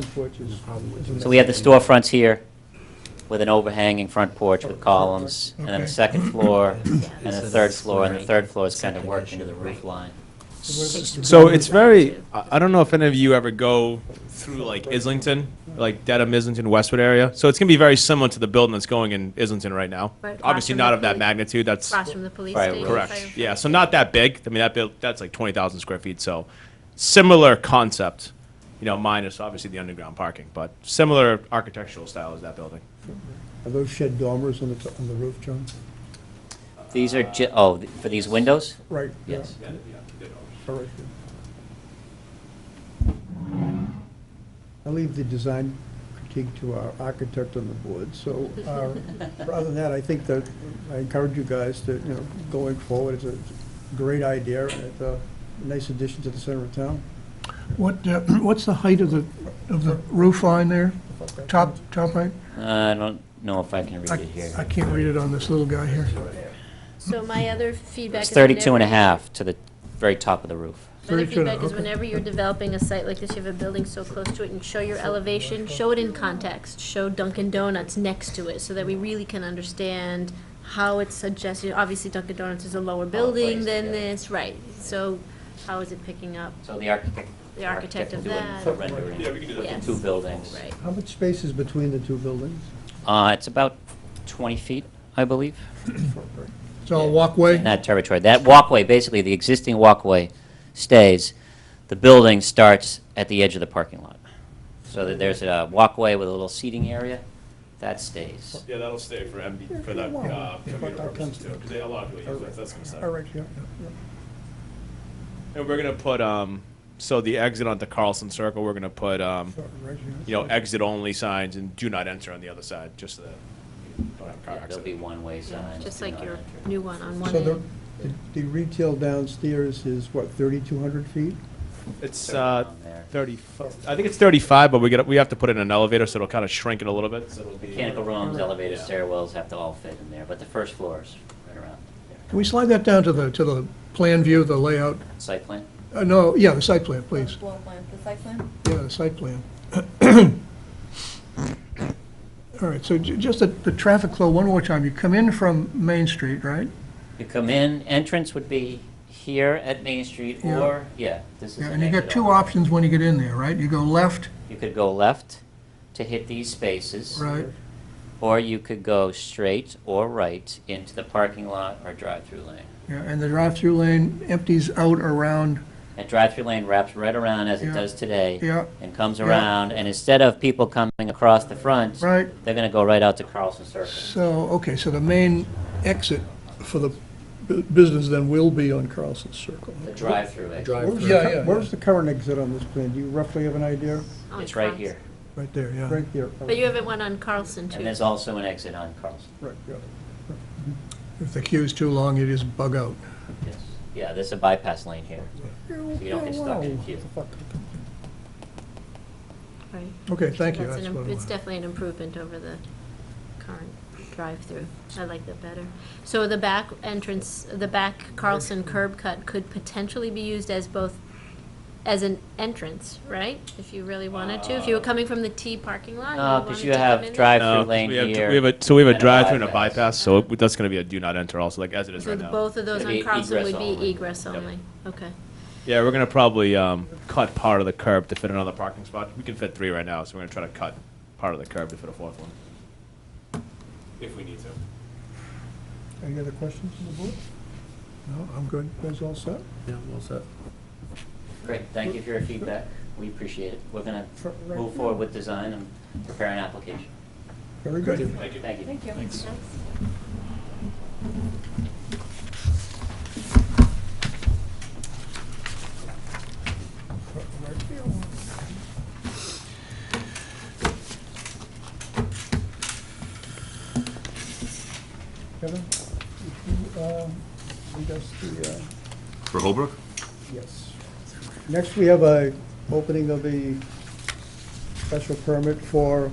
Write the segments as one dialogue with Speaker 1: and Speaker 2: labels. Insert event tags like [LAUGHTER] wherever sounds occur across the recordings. Speaker 1: front porch is...
Speaker 2: So we have the storefronts here with an overhanging front porch with columns, and then the
Speaker 1: Okay.
Speaker 2: second [COUGHS] floor,
Speaker 3: Yeah.
Speaker 2: and the third floor, and the third floor is kind of worked into the roof line.
Speaker 4: So it's very. I I don't know if any of you ever go through like Islington, like Dedham, Islington, Westwood area. So it's gonna be very similar to the building that's going in Islington right now.
Speaker 3: Right across
Speaker 4: Obviously
Speaker 3: from
Speaker 4: not
Speaker 3: the
Speaker 4: of that
Speaker 3: police-
Speaker 4: magnitude. That's
Speaker 3: Across from the police
Speaker 2: Right,
Speaker 3: station.
Speaker 2: right.
Speaker 3: fire-
Speaker 4: correct. Yeah. So not that big. I mean that build that's like twenty thousand square feet. So similar concept. You know, minus obviously the underground parking, but similar architectural style as that building.
Speaker 1: Are those shed dormers on the, t- on the roof, John?
Speaker 2: These are, ju- oh, th- for these windows?
Speaker 1: Right. yeah,
Speaker 2: Yes.
Speaker 1: all right, good. I leave the design critique to our architect on the board, so
Speaker 2: [LAUGHS]
Speaker 1: uh, rather than that, I think that, I encourage you guys to, you know, going forward, it's a it's a great idea, and it's a nice addition to the center of town.
Speaker 5: What, uh, [CLEARS THROAT] what's the height of the, of the roof line there? Top, top height?
Speaker 2: Uh, I don't know if I can read it
Speaker 5: I I
Speaker 2: here.
Speaker 5: can't read it on this little guy here.
Speaker 3: So my other feedback is.
Speaker 2: It's 32 and a
Speaker 3: whenever-
Speaker 2: half to the very top of the roof.
Speaker 3: My other
Speaker 5: 32 and a-
Speaker 3: feedback is
Speaker 5: okay.
Speaker 3: whenever you're developing a site like this, you have a building so close to it, and show your elevation, show it in context, show Dunkin' Donuts next to it, so that we really can understand how it's adjusted. Obviously Dunkin' Donuts is a lower building
Speaker 2: placed,
Speaker 3: than
Speaker 2: yeah.
Speaker 3: this, right, so how is it picking up?
Speaker 2: So the architect.
Speaker 3: The architect of
Speaker 2: will do
Speaker 3: that.
Speaker 2: a rendering
Speaker 3: Yes.
Speaker 2: Two buildings.
Speaker 3: Right.
Speaker 1: How much space is between the two buildings?
Speaker 2: Uh, It's about 20 feet, I believe.
Speaker 5: It's all walkway?
Speaker 2: in that territory. That walkway, basically, the existing walkway stays. The building starts at the edge of the parking lot. So that there's a walkway with a little seating area, that stays.
Speaker 4: Yeah, that'll stay for MB
Speaker 1: for the, uh, commuter purposes too, 'cause they-
Speaker 4: a lot of people
Speaker 1: use that, so that's
Speaker 4: gonna
Speaker 1: All right, yeah, yeah.
Speaker 4: And we're gonna put um, so the exit onto Carlson Circle. We're gonna put um,
Speaker 1: All right, yeah.
Speaker 4: you know, exit only signs and do not enter on the other side, just so that you don't have a
Speaker 2: Yeah, Uh,
Speaker 4: car
Speaker 2: There'll be
Speaker 4: accident.
Speaker 2: one-way signs.
Speaker 3: Just
Speaker 2: do
Speaker 3: like
Speaker 2: not
Speaker 3: your
Speaker 2: enter.
Speaker 3: new one on one
Speaker 1: So the,
Speaker 3: end.
Speaker 1: the- the retail downstairs is what, thirty-two hundred feet?
Speaker 4: It's
Speaker 2: Thirty
Speaker 4: uh,
Speaker 2: down there.
Speaker 4: thirty, I think it's thirty-five, but we get, we have to put in an elevator, so it'll kind of shrink it a little bit, so it'll be.
Speaker 2: Mechanical rooms, elevators,
Speaker 4: Yeah.
Speaker 2: stairwells have to all fit in there, but the first floor is right around.
Speaker 5: Can we slide that down to the, to the plan view, the layout?
Speaker 2: Site plan?
Speaker 5: Uh, no, yeah, the site plan, please.
Speaker 6: Floor plan, the site plan?
Speaker 5: Yeah, the
Speaker 6: [COUGHS]
Speaker 5: site plan. All right, so ju- just the, the traffic flow, one more time. You come in from Main Street, right?
Speaker 2: You come in, entrance would be here at Main Street,
Speaker 5: Yeah.
Speaker 2: or, yeah, this is
Speaker 5: Yeah,
Speaker 2: an
Speaker 5: And you got
Speaker 2: exit
Speaker 5: two
Speaker 2: only.
Speaker 5: options when you get in there, right? You go left,
Speaker 2: You could go left to hit these spaces.
Speaker 5: right?
Speaker 2: Or you could go straight or right into the parking lot or drive-through lane.
Speaker 5: Yeah, and the drive-through lane empties out around,
Speaker 2: That drive-through lane wraps right around as it
Speaker 5: Yeah.
Speaker 2: does today.
Speaker 5: Yeah.
Speaker 2: And comes
Speaker 5: Yeah.
Speaker 2: around, and instead of people coming across the front.
Speaker 5: Right.
Speaker 2: They're gonna go right out to Carlson Circle.
Speaker 5: so, okay, so the main exit for the bu- business then will be on Carlson Circle.
Speaker 2: The drive-through exit.
Speaker 1: Where's the
Speaker 5: Yeah,
Speaker 1: cur-
Speaker 5: yeah, yeah.
Speaker 1: Where's the current exit on this plan? Do you roughly have an idea?
Speaker 3: on
Speaker 2: It's right
Speaker 3: Carlson.
Speaker 2: here.
Speaker 5: Right there, yeah.
Speaker 1: Right here.
Speaker 3: But you have one on Carlson too.
Speaker 2: And there's also an exit on Carlson.
Speaker 1: Right, yeah.
Speaker 5: If the queue's too long, you just bug out.
Speaker 2: Yes. Yeah, there's a bypass lane here. you don't get stuck in a queue.
Speaker 3: Right.
Speaker 5: Okay, thank you.
Speaker 3: That's an
Speaker 5: That's
Speaker 3: im-
Speaker 5: what I
Speaker 3: It's
Speaker 5: wanted.
Speaker 3: definitely an improvement over the current drive-through. I like that better. So the back entrance, the back Carlson curb cut could potentially be used as both, as an entrance, right? If you really wanted to, if you were coming from the T parking
Speaker 2: No,
Speaker 3: lot. you
Speaker 2: 'cause
Speaker 3: wanted
Speaker 2: you
Speaker 3: to come
Speaker 2: have
Speaker 3: in-
Speaker 2: drive-
Speaker 4: No,
Speaker 2: Drive-through lane
Speaker 4: Uh, we have-
Speaker 2: here
Speaker 4: We have a, so we have
Speaker 2: and
Speaker 4: a
Speaker 2: a
Speaker 4: drive-through and a
Speaker 2: bypass.
Speaker 4: bypass, so it- that's gonna be a do not enter also, like as it is
Speaker 3: So
Speaker 4: right
Speaker 3: the-
Speaker 4: now.
Speaker 3: both of those
Speaker 2: It'd
Speaker 3: on
Speaker 2: be
Speaker 3: Carlson
Speaker 2: e- egress
Speaker 3: would be
Speaker 2: only.
Speaker 3: egress
Speaker 2: Yep.
Speaker 3: only, okay.
Speaker 4: Yeah, we're gonna probably, um, cut part of the curb to fit another parking spot. We can fit three right now, so we're gonna try to cut part of the curb to fit a fourth one. If we need to.
Speaker 1: Any other questions from the board?
Speaker 5: No, I'm good.
Speaker 1: You guys all set?
Speaker 2: Great, thank you for your feedback. We appreciate it. We're gonna
Speaker 1: For- right
Speaker 2: move forward with design and prepare an application.
Speaker 1: Very good.
Speaker 2: Thank you. Thank you.
Speaker 6: Thank you.
Speaker 1: Kevin, if you, um, read us the, uh,
Speaker 7: For Holbrook?
Speaker 1: yes. Next, we have a opening of the special permit for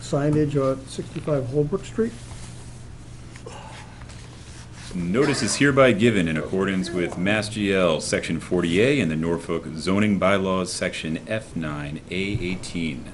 Speaker 1: signage on sixty-five Holbrook Street.
Speaker 7: Notice is hereby given in accordance with Mass GL Section 40A and the Norfolk zoning bylaws, Section F9A18.